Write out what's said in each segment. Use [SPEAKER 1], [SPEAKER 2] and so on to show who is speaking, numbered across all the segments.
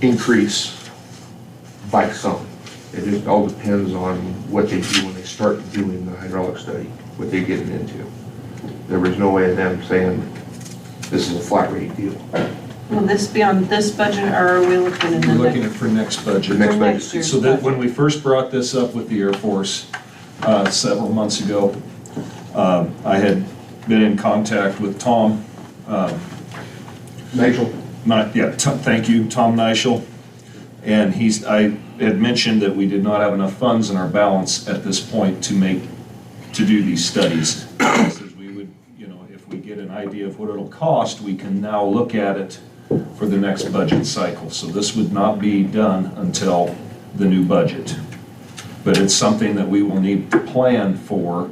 [SPEAKER 1] increase by some. It just all depends on what they do when they start doing the hydraulic study, what they're getting into. There was no way of them saying, this is a flat rate deal.
[SPEAKER 2] Will this be on this budget or are we looking in
[SPEAKER 3] We're
[SPEAKER 2] the
[SPEAKER 3] looking
[SPEAKER 2] next?
[SPEAKER 3] at for next
[SPEAKER 1] The
[SPEAKER 3] budget.
[SPEAKER 1] next
[SPEAKER 2] For
[SPEAKER 1] budget.
[SPEAKER 2] next year's
[SPEAKER 3] So that, when
[SPEAKER 2] budget.
[SPEAKER 3] we first brought this up with the Air Force uh, several months ago, um, I had been in contact with Tom,
[SPEAKER 1] Nigel?
[SPEAKER 3] not, yeah, Tom- thank you, Tom Nischel. And he's, I had mentioned that we did not have enough funds in our balance at this point to make, to do these studies. He says We would, you know, if we get an idea of what it'll cost, we can now look at it for the next budget cycle. So this would not be done until the new budget. But it's something that we will need to plan for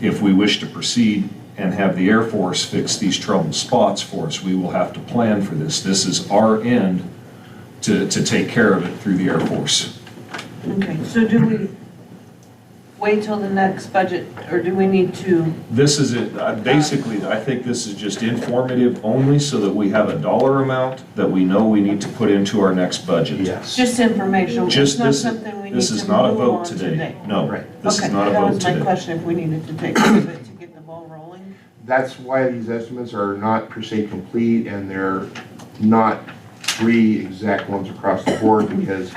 [SPEAKER 3] if we wish to proceed and have the Air Force fix these troubled spots for us, we will have to plan for this. This is our end to, to take care of it through the Air Force.
[SPEAKER 2] Okay, so do we wait till the next budget or do we need to?
[SPEAKER 3] This is it, I- basically, I think this is just informative only so that we have a dollar amount that we know we need to put into our next budget.
[SPEAKER 2] It's just information. It's
[SPEAKER 3] Just
[SPEAKER 2] not
[SPEAKER 3] this,
[SPEAKER 2] something we need
[SPEAKER 3] this
[SPEAKER 2] to
[SPEAKER 3] is not a
[SPEAKER 2] move
[SPEAKER 3] vote
[SPEAKER 2] on
[SPEAKER 3] today. No,
[SPEAKER 1] Right.
[SPEAKER 3] this
[SPEAKER 2] Okay,
[SPEAKER 3] is not a
[SPEAKER 2] that
[SPEAKER 3] vote
[SPEAKER 2] was my
[SPEAKER 3] today.
[SPEAKER 2] question, if we needed to take a bit to get the ball rolling.
[SPEAKER 1] That's why these estimates are not per se complete and they're not three exact ones across the board because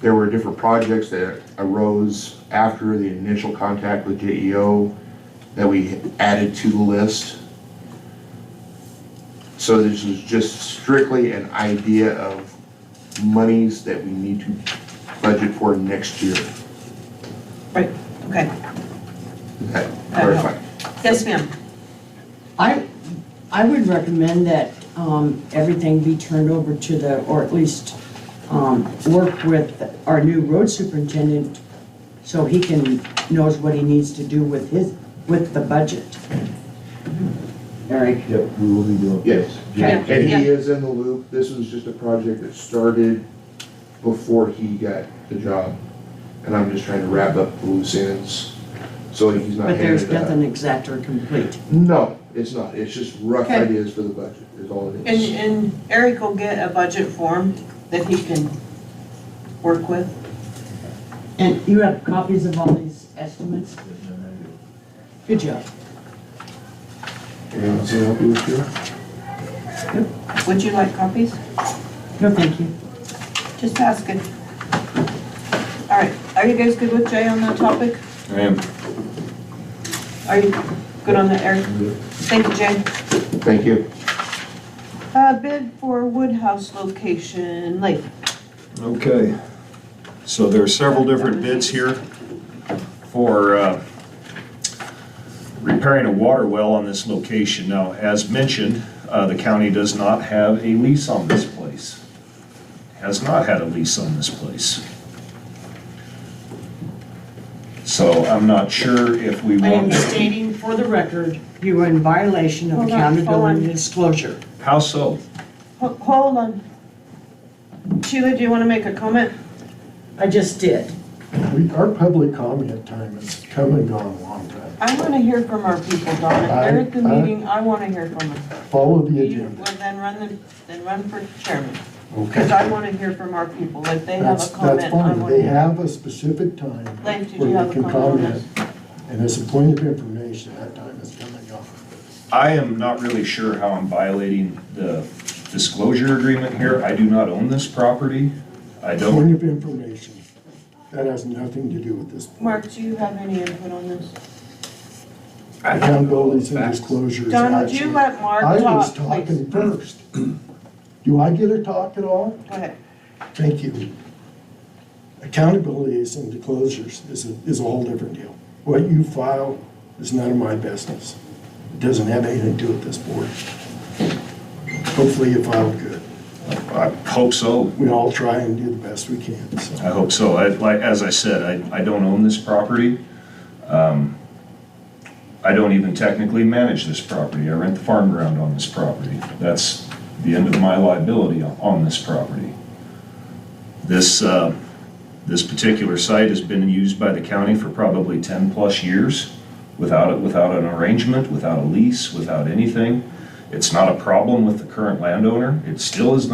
[SPEAKER 1] there were different projects that arose after the initial contact with JEO that we added to the list. So this is just strictly an idea of monies that we need to budget for next year.
[SPEAKER 2] Right, okay.
[SPEAKER 1] Does that clarify?
[SPEAKER 2] Yes, ma'am.
[SPEAKER 4] I, I would recommend that um, everything be turned over to the, or at least um, work with our new road superintendent so he can, knows what he needs to do with his, with the budget. Eric?
[SPEAKER 5] Yep, we will be doing.
[SPEAKER 1] Yes.
[SPEAKER 2] Yeah.
[SPEAKER 1] And he is in the loop. This was just a project that started before he got the job. And I'm just trying to wrap up the loose ends, so he's not
[SPEAKER 4] But there's
[SPEAKER 1] handed that.
[SPEAKER 2] uh,
[SPEAKER 4] nothing exact or complete.
[SPEAKER 1] No, it's not. It's just rough
[SPEAKER 2] Okay.
[SPEAKER 1] ideas for the budget, is all it
[SPEAKER 2] And,
[SPEAKER 1] is.
[SPEAKER 2] and Eric will get a budget form that he can work with.
[SPEAKER 4] And you have copies of all these estimates? Good job.
[SPEAKER 1] Anyone else help you with your-
[SPEAKER 2] Would you like copies?
[SPEAKER 4] No, thank you.
[SPEAKER 2] Just asking. All right, are you guys good with Jay on that topic?
[SPEAKER 3] I am
[SPEAKER 2] Are you good on that, Eric? Thank you, Jay.
[SPEAKER 1] Thank you.
[SPEAKER 2] Uh, bid for Woodhouse location, Lake.
[SPEAKER 3] Okay, so there are several different bids here for uh, repairing a water well on this location. Now, as mentioned, uh, the county does not have a lease on this place. Has not had a lease on this place. So I'm not sure if we
[SPEAKER 4] I am
[SPEAKER 3] want,
[SPEAKER 4] stating for the record, you are in violation of
[SPEAKER 2] Hold on, hold
[SPEAKER 4] accountability
[SPEAKER 2] on.
[SPEAKER 4] disclosure.
[SPEAKER 3] how so?
[SPEAKER 2] Ho- Hold on. Sheila, do you want to make a comment?
[SPEAKER 4] I just did.
[SPEAKER 5] We, our public comment time has come and gone a long time.
[SPEAKER 2] I want to hear from our people, Donna. They're at the
[SPEAKER 5] I- I-
[SPEAKER 2] meeting, I want to hear from them.
[SPEAKER 5] Follow the
[SPEAKER 2] You,
[SPEAKER 5] agenda.
[SPEAKER 2] well, then run the, then run for chairman, because
[SPEAKER 5] Okay.
[SPEAKER 2] I want to hear from our people. If they have
[SPEAKER 5] That's,
[SPEAKER 2] a
[SPEAKER 5] that's
[SPEAKER 2] comment, I
[SPEAKER 5] fine.
[SPEAKER 2] want
[SPEAKER 5] They
[SPEAKER 2] to.
[SPEAKER 5] have a specific time
[SPEAKER 2] Lance, did you
[SPEAKER 5] where
[SPEAKER 2] have a
[SPEAKER 5] they can
[SPEAKER 2] comment on
[SPEAKER 5] comment. And it's a point of information, that time has come and gone.
[SPEAKER 3] I am not really sure how I'm violating the disclosure agreement here. I do not own this property. I don't.
[SPEAKER 5] Point of information, that has nothing to do with this.
[SPEAKER 2] Mark, do you have any input on this?
[SPEAKER 5] Accountability and disclosure is
[SPEAKER 2] Donna, do you
[SPEAKER 5] action.
[SPEAKER 2] let Mark
[SPEAKER 5] I was
[SPEAKER 2] talk, please?
[SPEAKER 5] talking first. Do I get to talk at all?
[SPEAKER 2] Go ahead.
[SPEAKER 5] Thank you. Accountability is in disclosures is a, is a whole different deal. What you file is none of my business. It doesn't have anything to do with this board. Hopefully you filed good.
[SPEAKER 3] I hope so.
[SPEAKER 5] We all try and do the best we can, so.
[SPEAKER 3] I hope so. I, like, as I said, I, I don't own this property. Um, I don't even technically manage this property. I rent the farm ground on this property. That's the end of my liability on- on this property. This, uh, this particular site has been used by the county for probably ten-plus years without, it- without an arrangement, without a lease, without anything. It's not a problem with the current landowner. It still is not.